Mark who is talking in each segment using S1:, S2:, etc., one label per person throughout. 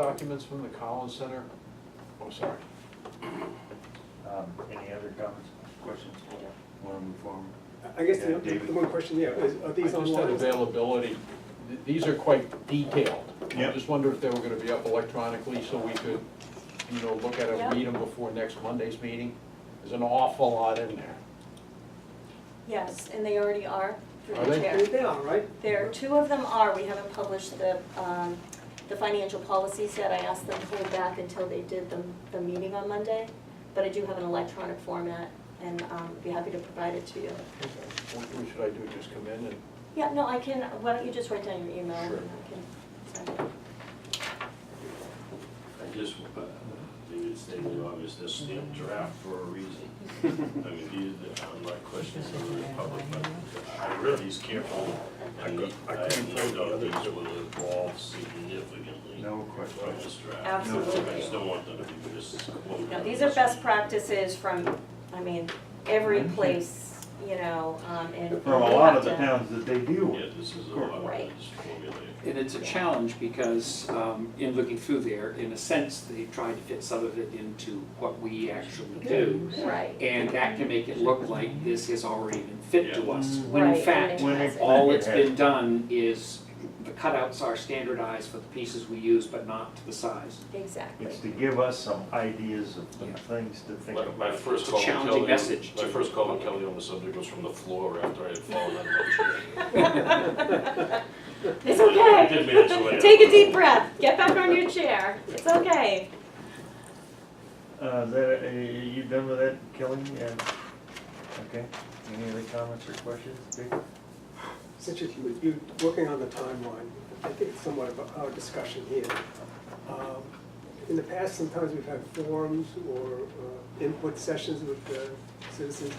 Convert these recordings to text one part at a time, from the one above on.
S1: documents from the Collins Center? Oh, sorry.
S2: Um, Any other comments, questions? Want to move forward?
S3: I guess the,
S2: Yeah, David.
S3: the one question, yeah, is, are these
S1: I just had
S3: online?
S1: availability, Th- these are quite detailed. I
S2: Yep.
S1: just wondered if they were gonna be up electronically so we could, you know, look at
S4: Yeah.
S1: them, read them before next Monday's meeting. There's an awful lot in there.
S4: Yes, and they already are through
S1: Are
S4: the
S1: they?
S4: chair.
S3: They are, right?
S4: There, two of them are, we haven't published the, um, the financial policy set, I asked them to hold back until they did the, the meeting on Monday, but I do have an electronic format, and, um, be happy to provide it to you.
S1: What what should I do, just come in and,
S4: Yeah, no, I can, why don't you just write down your email, and
S1: Sure.
S4: I can, send it.
S5: I just, uh, maybe it's stating obvious, this stamped draft for a reason. I mean, these, uh, I'm not questioning the Republic, but I read these carefully.
S2: I
S5: And
S2: could- I
S5: I
S2: couldn't find
S5: know
S2: the other.
S5: these will evolve significantly
S2: No
S5: from
S2: questions.
S5: this draft.
S4: Absolutely.
S5: I just don't want them to be just.
S4: No, these are best practices from, I mean, every
S6: Mm-hmm.
S4: place, you know, um, and.
S2: From a lot of the towns that they deal
S5: Yeah,
S2: with.
S5: this is a lot of
S4: Right.
S5: this formulated.
S6: And it's a challenge because um, in looking through there, in a sense, they tried to fit some of it into what we actually do.
S4: Right,
S6: And that can make it look like this has already been fit to us, when
S4: Mm-hmm. right,
S6: in fact,
S4: when
S2: when
S4: it has
S2: it-
S4: it.
S6: all that's been done is the cutouts are standardized for the pieces we use, but not to the size.
S4: Exactly.
S2: It's to give us some ideas of some
S6: Yeah.
S2: things to think
S5: My,
S2: about.
S5: my first
S6: It's a
S5: call with Kelly.
S6: challenging message
S5: My
S6: to-
S5: first call with Kelly on the subject was from the floor after I had fallen out of my chair.
S4: It's
S5: I
S4: okay.
S5: did manage to lay out.
S4: Take a deep breath. Get back on your chair. It's okay.
S2: Uh, that, uh, you done with that, Kelly? Yeah. Okay. Any other comments or questions? Dick?
S3: It's interesting, but you, working on the timeline, I think it's somewhat of our discussion here. Um, In the past, sometimes we've had forums or uh, input sessions with uh, citizens.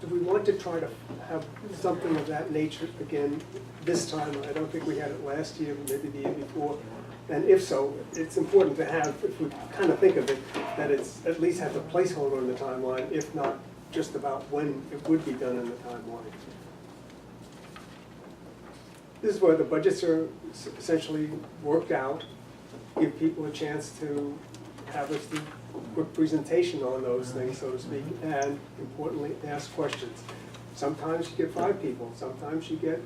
S3: Do we want to try to have something of that nature again this time? I don't think we had it last year, but maybe the year before. And if so, it's important to have, if we kind of think of it, that it's, at least have a placeholder in the timeline, if not just about when it would be done in the timeline. This is where the budgets are s- essentially worked out, give people a chance to have a s- quick presentation on those things, so to speak, and importantly, ask questions. Sometimes you get five people, sometimes you get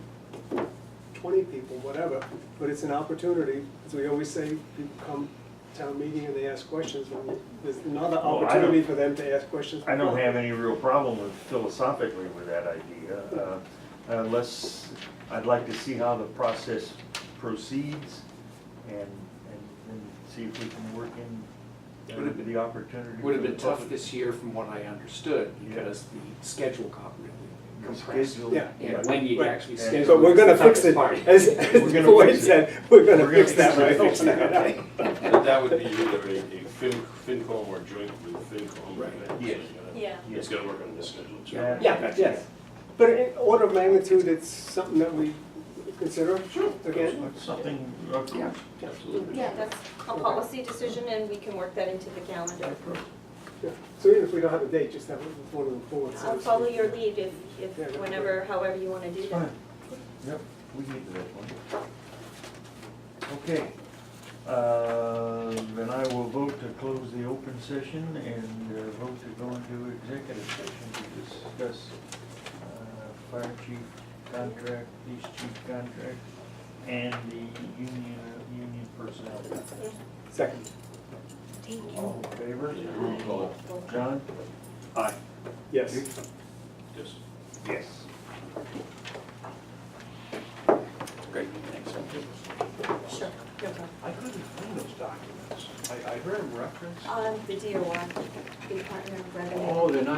S3: twenty people, whatever, but it's an opportunity, as we always say, people come to town meeting and they ask questions, and there's
S2: Well,
S3: another
S2: I don't-
S3: opportunity for them to ask questions.
S2: I don't have any real problem with philosophically with that idea, uh, unless, I'd like to see how the process proceeds and, and and see if we can work
S6: Would
S2: in uh,
S6: it-
S2: the opportunity.
S6: Would have
S2: for
S6: been
S2: the
S6: tough
S2: public.
S6: this year from what I understood
S2: Yeah.
S6: because the schedule got really compressed.
S2: Schedule.
S3: Yeah.
S6: And when you
S3: Right.
S6: actually
S2: But
S6: schedule.
S3: But we're
S6: is the
S3: gonna fix
S6: toughest
S3: it,
S6: part.
S3: as,
S2: We're
S3: as
S2: gonna
S3: Boyd
S2: fix it.
S3: said, we're gonna
S2: We're gonna
S3: fix that, right?
S2: fix it.
S5: But that would be either a, a Fin, FinCom or joint with FinCom.
S6: Right.
S5: So
S2: Yes.
S5: you gotta-
S4: Yeah.
S5: It's gonna work on this schedule too.
S2: Yeah.
S3: Yeah, yeah. But in order of magnitude, it's something that we consider again.
S2: Something, uh,
S6: Yeah.
S5: Absolutely.
S4: Yeah, that's a policy decision and we can work that into the calendar.
S3: Yeah. So even if we don't have a date, just have it before the board. so
S4: I'll
S3: to speak.
S4: follow your lead if,
S3: Yeah,
S4: if,
S3: that's
S4: whenever, however you wanna do
S2: it's
S4: that.
S2: fine. Yep, we need that one. Okay, uh, then I will vote to close the open session and uh, vote to go into executive session to discuss uh, fire chief contract, police chief contract, and the union, uh, union personnel.
S3: Second.
S2: All in favor?
S5: Roll call.
S2: John? Aye.
S3: Yes.
S5: Yes.
S2: Yes.
S6: Great, thanks.
S4: Sure, no problem.
S1: I couldn't find those documents. I, I heard them referenced.
S4: Um, the DOR, the Department of Revenue.
S1: Oh, they're not